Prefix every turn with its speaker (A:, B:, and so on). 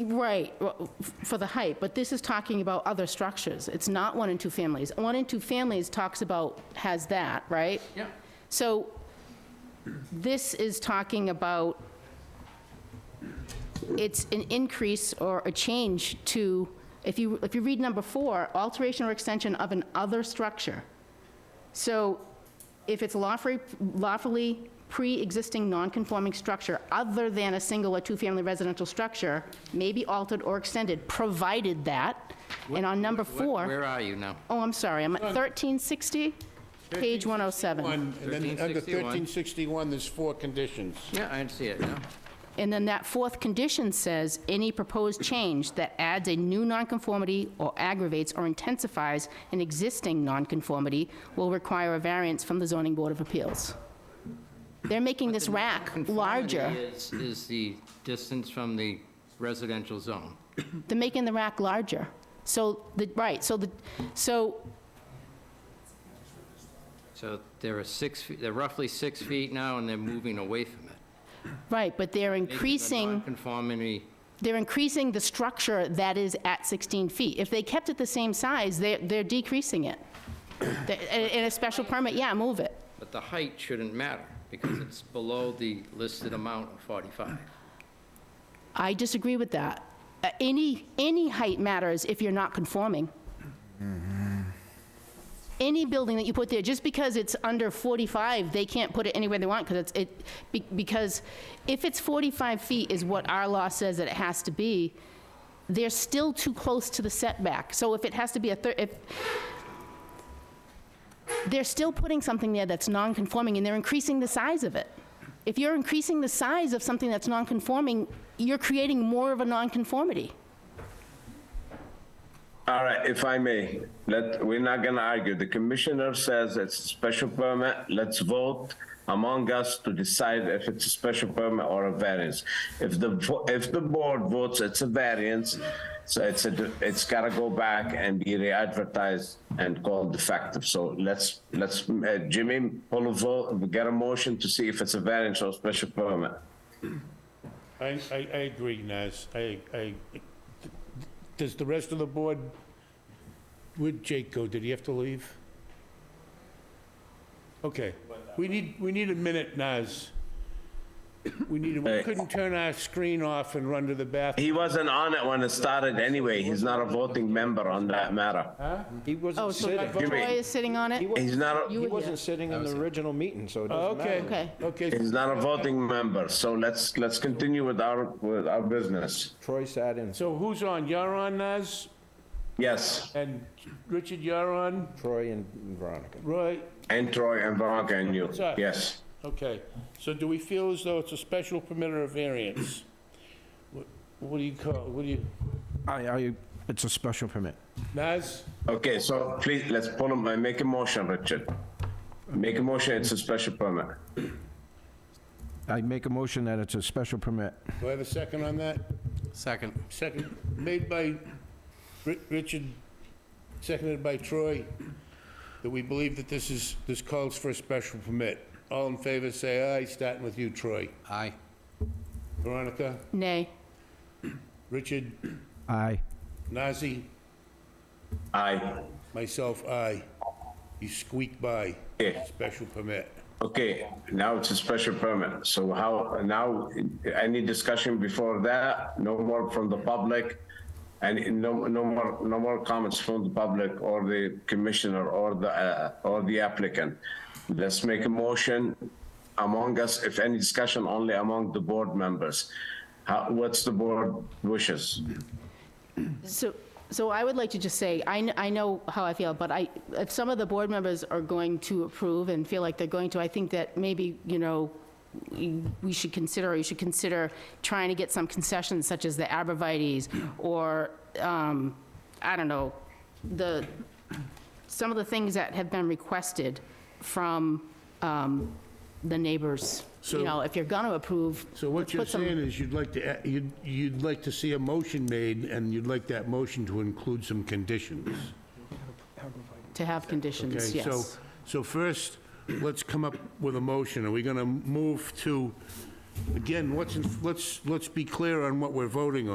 A: Right, well, f- for the height, but this is talking about other structures. It's not one and two families. One and two families talks about, has that, right?
B: Yeah.
A: So this is talking about, it's an increase or a change to, if you, if you read number four, alteration or extension of an other structure. So if it's lawfully, lawfully pre-existing non-conforming structure other than a single or two-family residential structure may be altered or extended, provided that, and on number
B: Where-
A: four,
B: Where are you now?
A: oh, I'm sorry, I'm at 1360, page 107.
C: One, and then under
B: 1361.
C: 1361, there's four conditions.
B: Yeah, I see it now.
A: And then that fourth condition says, any proposed change that adds a new nonconformity or aggravates or intensifies an existing nonconformity will require a variance from the zoning board of appeals. They're making this rack larger.
B: Conformity Is is the distance from the residential zone.
A: They're making the rack larger. So, the, right, so the, so,
B: So there are six, fe- they're roughly six feet now, and they're moving away from it.
A: right, but they're
B: Making the
A: increasing,
B: Nonconformity,
A: they're increasing the structure that is at 16 feet. If they kept it the same size, they're, they're decreasing it. They- In a special permit, yeah, move it.
B: but the height shouldn't matter, because it's below the listed amount of 45.
A: I disagree with that. Uh, Any, any height matters if you're not conforming. Any building that you put there, just because it's under 45, they can't put it anywhere they want, because it's, it, be- because if it's 45 feet is what our law says that it has to be, they're still too close to the setback. So if it has to be a, thir- if, they're still putting something there that's non-conforming, and they're increasing the size of it. If you're increasing the size of something that's non-conforming, you're creating more of a non-conformity.
D: All right, if I may, let, we're not gonna argue. The commissioner says it's a special permit. Let's vote among us to decide if it's a special permit or a variance. If the, vo- if the board votes it's a variance, so it's a, it's gotta go back and be re-advertised and called defective. So let's, let's, uh, Jimmy, pull a vote, get a motion to see if it's a variance or special permit.
C: I, I, I agree, Naz. I, I, does the rest of the board, where'd Jake go? Did he have to leave? Okay, we need, we need a minute, Naz. We need, a- we
D: Hey.
C: couldn't turn our screen off and run to the bathroom.
D: He wasn't on it when it started anyway. He's not a voting member on that matter.
E: He
A: Oh,
E: wasn't
A: so
E: sitting.
D: Give me-
A: Troy is sitting on it?
D: He's not. a-
A: You
E: He
A: were here.
E: wasn't sitting in the original meeting, so it doesn't matter.
C: Oh, Okay,
A: Okay.
C: okay.
D: He's not a voting member, so let's, let's continue with our, with our business.
E: Troy sat in.
C: So who's on? You're on, Naz?
D: Yes,
C: And Richard, you're on?
E: Troy and Veronica.
C: Roy?
D: and Troy and Veronica and you, yes.
C: Okay, so do we feel as though it's a special permit or a variance? What- What do you call, what do you,
E: I, I, it's a special permit.
C: Naz?
D: Okay, so please, let's pull him, uh, make a motion, Richard. Make a motion, it's a special permit.
E: I make a motion that it's a special permit.
C: Do I have a second on that?
B: Second.
C: Second, made by Ri- Richard, seconded by Troy, that we believe that this is, this calls for a special permit. All in favor, say aye, starting with you, Troy.
B: Aye.
C: Veronica,
A: Nay.
C: Richard,
E: Aye.
C: Nazi,
D: Aye.
C: myself, aye. You squeak by,
D: Yeah.
C: special permit.
D: Okay, now it's a special permit, so how, now, any discussion before that? No more from the public? And no, no more, no more comments from the public or the commissioner or the, uh, or the applicant? Let's make a motion among us, if any discussion, only among the board members. How, what's the board wishes?
A: So, so I would like to just say, I, kn- I know how I feel, but I, if some of the board members are going to approve and feel like they're going to, I think that maybe, you know, we we should consider, or you should consider trying to get some concessions such as the arborvitae's or, um, I don't know, the, some of the things that have been requested from, um, the neighbors.
C: So-
A: You know, if you're gonna approve,
C: So what
A: let's
C: you're
A: put some-
C: saying is you'd like to, a- you'd, you'd like to see a motion made, and you'd like that motion to include some conditions,
A: to have conditions,
C: okay?
A: yes.
C: So, so first, let's come up with a motion. Are we gonna move to, again, what's, in- let's, let's be clear on what we're voting on.